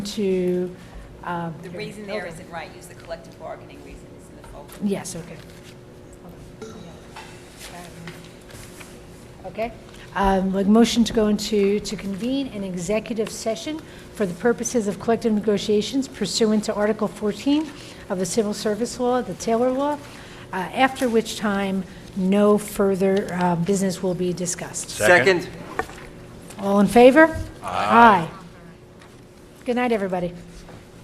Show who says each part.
Speaker 1: to, um,
Speaker 2: The reason there isn't right, use the collective bargaining reason, it's in the folder.
Speaker 1: Yes, okay. Okay, um, like motion to go into, to convene an executive session for the purposes of collective negotiations pursuant to Article 14 of the Civil Service Law, the Taylor Law, uh, after which time no further uh, business will be discussed.
Speaker 3: Second.
Speaker 1: All in favor? Aye. Good night, everybody.